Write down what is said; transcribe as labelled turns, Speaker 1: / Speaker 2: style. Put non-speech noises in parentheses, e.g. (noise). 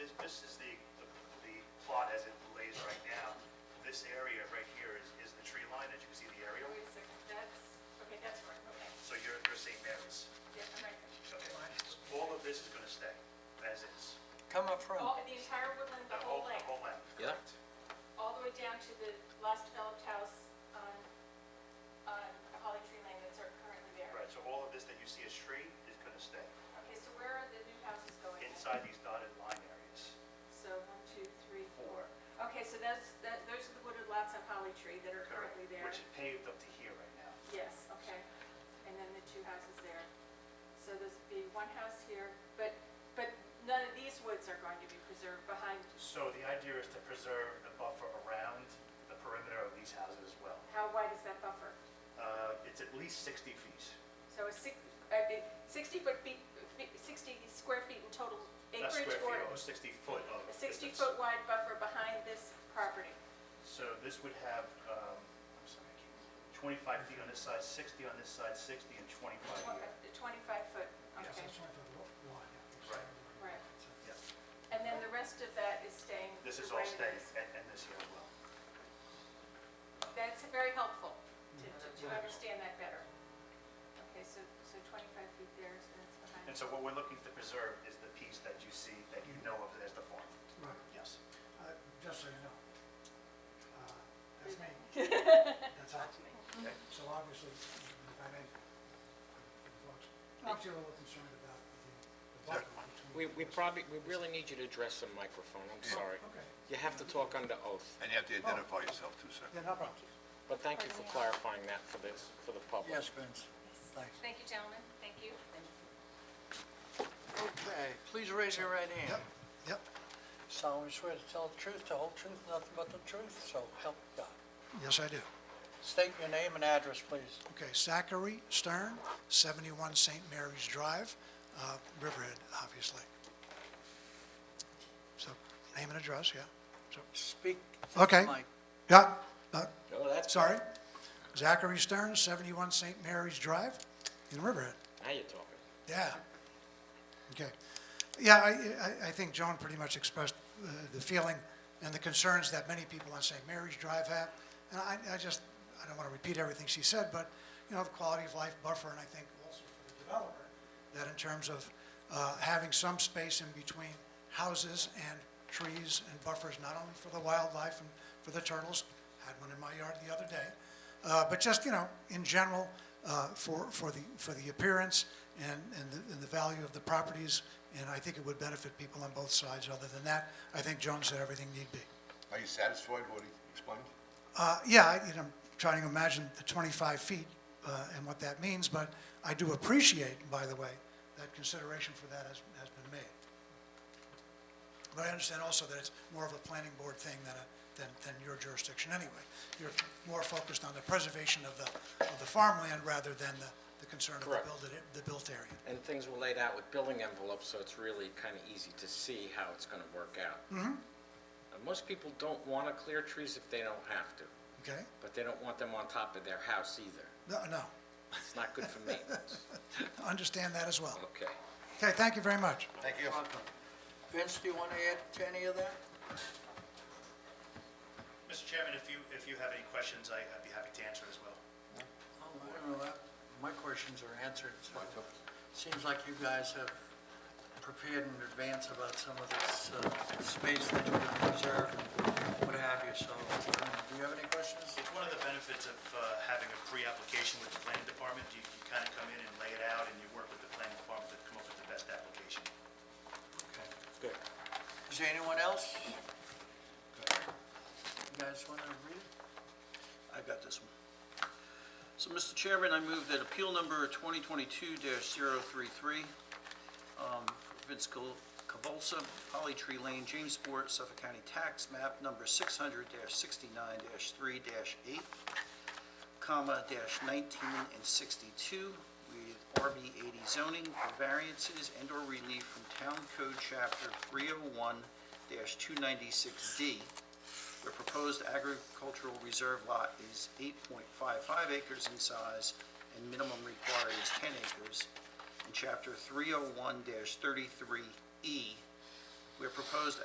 Speaker 1: this is the, the the plot as it lays right now. This area right here is, is the tree line, as you can see the aerial.
Speaker 2: Wait a second, that's, okay, that's correct, okay,
Speaker 1: So you're, you're St. Mary's.
Speaker 2: yeah, I'm right there.
Speaker 1: Okay. All of this is going to stay as is.
Speaker 3: Come up front.
Speaker 2: All, the entire woodland, the whole
Speaker 1: The
Speaker 2: length,
Speaker 1: whole length,
Speaker 3: Yeah.
Speaker 1: correct.
Speaker 2: all the way down to the last developed house on, on Holly Tree Lane that's are currently there.
Speaker 1: Right, so all of this that you see as tree is going to stay
Speaker 2: Okay, so where are the new houses going?
Speaker 1: inside these dotted line areas.
Speaker 2: So one, two, three, four. Okay, so that's, that, those are the wooded lots on Holly Tree that are
Speaker 1: Correct.
Speaker 2: currently there.
Speaker 1: Which is paved up to here right now.
Speaker 2: Yes, okay. And then the two houses there. So there's be one house here, but, but none of these woods are going to be preserved behind
Speaker 1: So the idea is to preserve the buffer around the perimeter of these houses as well.
Speaker 2: How wide is that buffer?
Speaker 1: Uh, It's at least 60 feet.
Speaker 2: So a six, uh, the sixty foot feet, feet- sixty square feet in total
Speaker 1: Not square
Speaker 2: acreage
Speaker 1: feet,
Speaker 2: or
Speaker 1: oh, 60 foot of
Speaker 2: a
Speaker 1: distance.
Speaker 2: sixty foot wide buffer behind this property?
Speaker 1: So this would have, um, I'm sorry, I can't- 25 feet on this side, 60 on this side, 60 and 25 here.
Speaker 2: Tw- uh, Twenty-five foot,
Speaker 4: Yes,
Speaker 2: okay,
Speaker 4: that's right for the lo- lot. yeah.
Speaker 1: Right.
Speaker 2: right.
Speaker 1: Yeah.
Speaker 2: And then the rest of that is staying?
Speaker 1: This
Speaker 2: the
Speaker 1: is all
Speaker 2: way it
Speaker 1: staying
Speaker 2: is.
Speaker 1: and and this here as well.
Speaker 2: That's very helpful to, to- to understand that better. Okay, so, so twenty-five feet there, so that's behind.
Speaker 1: And so what we're looking to preserve is the piece that you see, that you know of as the farm.
Speaker 4: Right,
Speaker 1: Yes.
Speaker 4: Uh, just so you know, uh, that's me. That's us.
Speaker 1: Okay.
Speaker 4: So obviously, if I may, folks, folks are a little concerned about the the buffer between.
Speaker 5: We, we
Speaker 4: the-
Speaker 5: probably, we really need you to address the microphone, I'm sorry.
Speaker 4: Okay,
Speaker 5: You have to talk under oath,
Speaker 6: And you have to identify yourself too, sir.
Speaker 4: then up.
Speaker 5: but thank you for clarifying that for the, for the public.
Speaker 4: Yes, Vince, thanks.
Speaker 2: Thank you, gentlemen, thank you.
Speaker 3: Okay, please raise your right hand.
Speaker 4: Yep,
Speaker 7: solemnly swear to tell the truth, the whole truth, nothing but the truth, so help God.
Speaker 4: yes, I do.
Speaker 7: State your name and address, please.
Speaker 4: Okay, Zachary Stern, 71 St. Mary's Drive, uh, Riverhead, obviously. So, name and address, yeah.
Speaker 7: Speak. to the
Speaker 4: Okay.
Speaker 7: mic.
Speaker 4: Yeah, uh,
Speaker 5: Oh, that's,
Speaker 4: sorry. Zachary Stern, 71 St. Mary's Drive in Riverhead.
Speaker 5: now you're talking.
Speaker 4: Yeah. Okay. Yeah, I, I, I think Joan pretty much expressed uh, the feeling and the concerns that many people on St. Mary's Drive have. And I, I just, I don't want to repeat everything she said, but, you know, the quality of life buffer, and I think also for the developer, that in terms of uh, having some space in between houses and trees and buffers, not only for the wildlife and for the turtles, had one in my yard the other day, uh, but just, you know, in general, uh, for, for the, for the appearance and, and the, and the value of the properties, and I think it would benefit people on both sides. Other than that, I think Joan said everything need be.
Speaker 6: Are you satisfied with what he explained?
Speaker 4: Uh, yeah, I, you know, I'm trying to imagine the 25 feet, uh, and what that means, but I do appreciate, by the way, that consideration for that has, has been made. But I understand also that it's more of a planning board thing than a, than, than your jurisdiction anyway. You're more focused on the preservation of the, of the farmland rather than the, the concern of the
Speaker 5: Correct.
Speaker 4: built, the built area.
Speaker 5: And things were laid out with building envelopes, so it's really kind of easy to see how it's going to work out.
Speaker 4: Mm-hmm.
Speaker 5: And most people don't want to clear trees if they don't have to,
Speaker 4: Okay?
Speaker 5: but they don't want them on top of their house either.
Speaker 4: No, no,
Speaker 5: It's
Speaker 4: (laughs)
Speaker 5: not good for maintenance.
Speaker 4: understand that as well.
Speaker 5: Okay.
Speaker 4: Okay, thank you very much.
Speaker 6: Thank you.
Speaker 7: Vince, do you want to add to any of that?
Speaker 1: Mr. Chairman, if you, if you have any questions, I- I'd be happy to answer as well.
Speaker 7: Oh, I don't know that. My questions are answered, so seems like you guys have prepared in advance about some of this uh, space that you would preserve and what have you, so um, do you have any questions?
Speaker 1: It's one of the benefits of uh, having a pre-application with the planning department. You you kind of come in and lay it out, and you work with the planning department to come up with the best application.
Speaker 7: Okay.
Speaker 5: Good.
Speaker 7: Is there anyone else? You guys want to read?
Speaker 8: I've got this one. So, Mr. Chairman, I move that appeal number 2022-033, um, Vince Cavol- Cavolsa, Holly Tree Lane, Jamesport, Suffolk County Tax Map Number 600-69-3-8, comma, dash 19 and 62, with RB 80 zoning for variances and/or relief from Town Code Chapter 301-296D, the proposed agricultural reserve lot is 8.55 acres in size, and minimum required is 10 acres. oh In Chapter 301-33E, E, where proposed